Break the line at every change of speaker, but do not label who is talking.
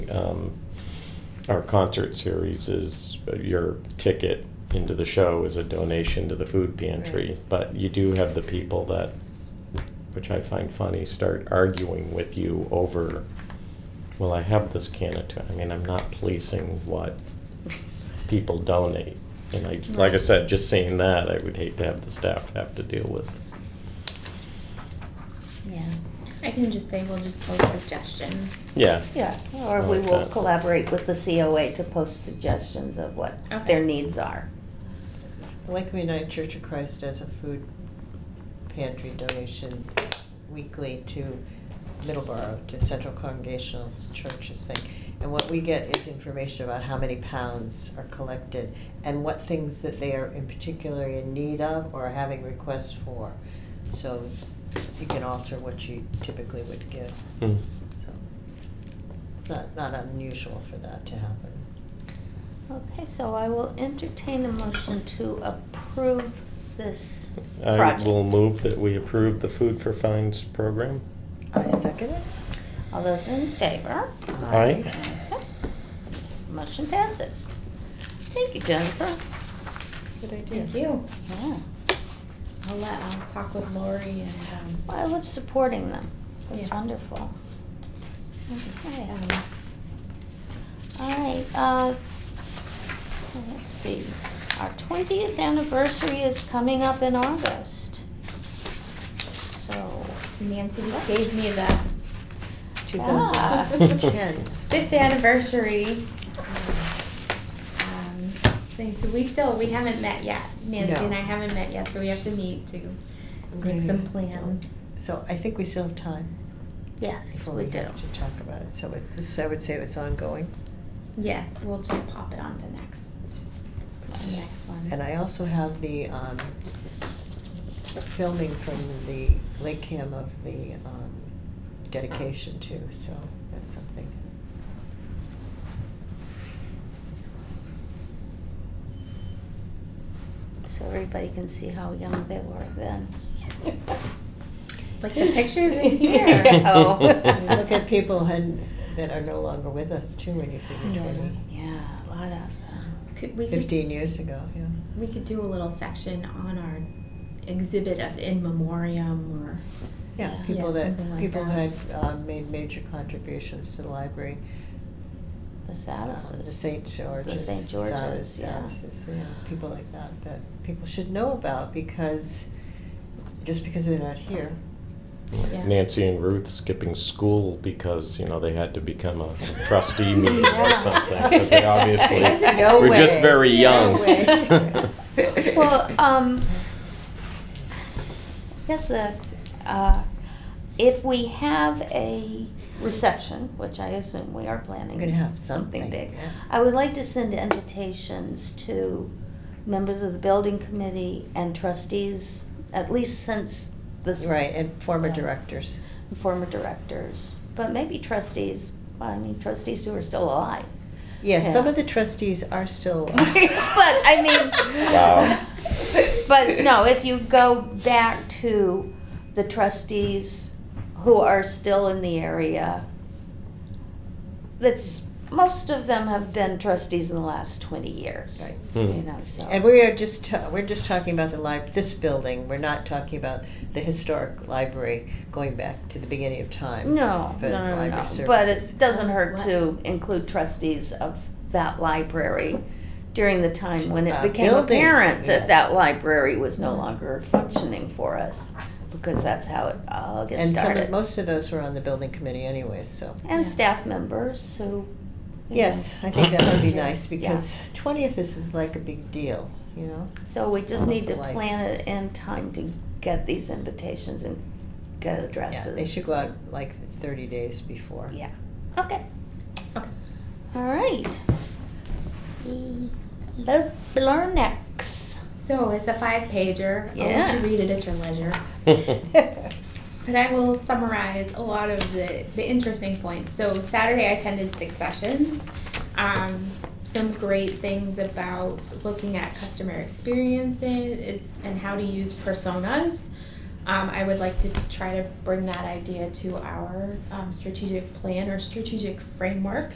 um, our concert series is uh, your ticket into the show is a donation to the food pantry.
Right.
But you do have the people that, which I find funny, start arguing with you over, well, I have this can of, tuna." I mean, I'm not policing what people donate. And I, like I
Right.
said, just seeing that, I would hate to have the staff have to deal with.
Yeah,
I can just say we'll just post suggestions.
Yeah.
yeah, or
I
we
like
will
that.
collaborate with the COA to post suggestions of what
Okay.
their needs are.
Lake United Church of Christ does a food pantry donation weekly to Middleborough, to Central Congregational Church's thing. And what we get is information about how many pounds are collected and what things that they are in particular in need of or are having requests for. So you can alter what you typically would give.
Mm.
So It's not, not unusual for that to happen.
Okay, so I will entertain a motion to approve this
I
project.
will move that we approve the Food for Fines program.
I second it.
All those in favor?
Aye.
Okay. Motion passes. Thank you, Jennifer.
Good idea.
Thank you.
Yeah,
I'll let, I'll talk with Lori and,
Well,
um,
I love supporting them. That's
Yeah.
wonderful. Okay.
um,
All right, uh, let's see, our twentieth anniversary is coming up in August. So,
Nancy just gave me the
Ah.
2010.
fifth anniversary. um, Thing, so we still, we haven't met yet. Nancy
No.
and I haven't met yet, so we have to meet to make some plans.
So I think we still have time
yes,
before
we
we
do.
have to talk about it. So it's, this, I would say it's ongoing.
Yes, we'll just pop it on to next, the next
And
one.
I also have the um, filming from the Lake Cam of the um, dedication too, so that's something.
So everybody can see how young they were then.
Like the pictures in here.
Oh.
And you look at people and, that are no longer with us too, when you figure
Yeah.
twenty,
Yeah, a lot of them.
Could, we could
fifteen years ago, yeah.
We could do a little section on our exhibit of in memoriam or
Yeah,
Yeah.
people
Yeah,
that,
something like
people
that.
had uh, made major contributions to the library.
The
Um, The
Saddles.
St. George's.
St.
the Cyrus
George's, yeah.
Services, you know, people like that, that people should know about because, just because they're not here.
Yeah.
Nancy and Ruth skipping school because, you know, they had to become a trustee meeting or
Yeah.
something, because they
I
obviously
said, No
were just
way.
very
No
young.
way.
Well, um, yes, the, uh, if we have a reception, which I assume we are planning.
We're gonna have something,
big.
yeah.
I would like to send invitations to members of the building committee and trustees, at least since this.
Right, and former
Yeah.
directors.
Former directors, but maybe trustees, I mean trustees who are still alive.
Yeah, some
Yeah.
of the trustees are still.
but I mean,
Wow.
but no, if you go back to the trustees who are still in the area, that's most of them have been trustees in the last twenty years.
Right.
You
Hmm.
know, so
And we are just, ta- we're just talking about the lib, this building, we're not talking about the historic library going back to the beginning of time.
no,
for
no, no, no,
library
no. But
services.
it doesn't hurt
That's
to include trustees of that library during the time when it
Uh,
became
building,
apparent that
yes.
that library was no longer functioning for us, because that's how it all gets
And some,
started.
of- most of those were on the building committee anyway, so.
And
Yeah.
staff members who. you
Yes,
know.
I think that would be
Yeah.
nice because twentieth, this is like a big deal, you know?
So we just need to
Almost alike.
plan it in time to get these invitations and get
Yeah,
addresses.
They should go out like thirty days before.
Yeah, okay.
Okay.
All right. Mm, Bl- Blarnex.
So it's a five pager. I'll
Yeah.
let you read it at your leisure. But I will summarize a lot of the, the interesting points. So Saturday I attended six sessions. Um, some great things about looking at customer experiences is, and how to use personas. Um, I would like to try to bring that idea to our um, strategic plan or strategic framework